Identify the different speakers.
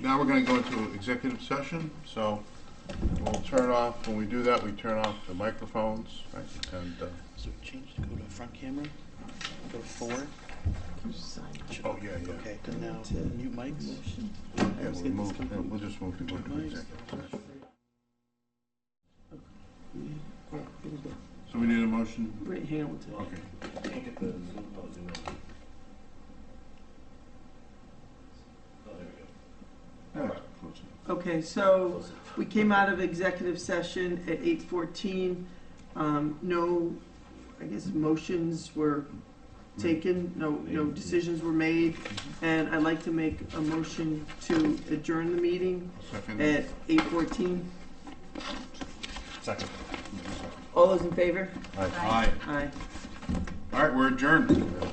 Speaker 1: now we're gonna go into executive session, so we'll turn off, when we do that, we turn off the microphones, right? And, uh,
Speaker 2: So change to go to front camera, go to four. Should-
Speaker 1: oh, yeah, yeah.
Speaker 2: Okay, and now mute mics.
Speaker 1: Yeah, we'll move, yeah, we'll just move to go to executive session. So we need a motion?
Speaker 3: Brett Hamilton.
Speaker 1: Okay. Yeah, close enough.
Speaker 3: Okay, so we came out of executive session at eight fourteen. Um, no, I guess motions were taken, no, no decisions were made. And I'd like to make a motion to adjourn the meeting
Speaker 1: Second?
Speaker 3: at eight fourteen.
Speaker 1: Second.
Speaker 3: All those in favor?
Speaker 1: Aye.
Speaker 3: Aye.
Speaker 1: All right, we're adjourned.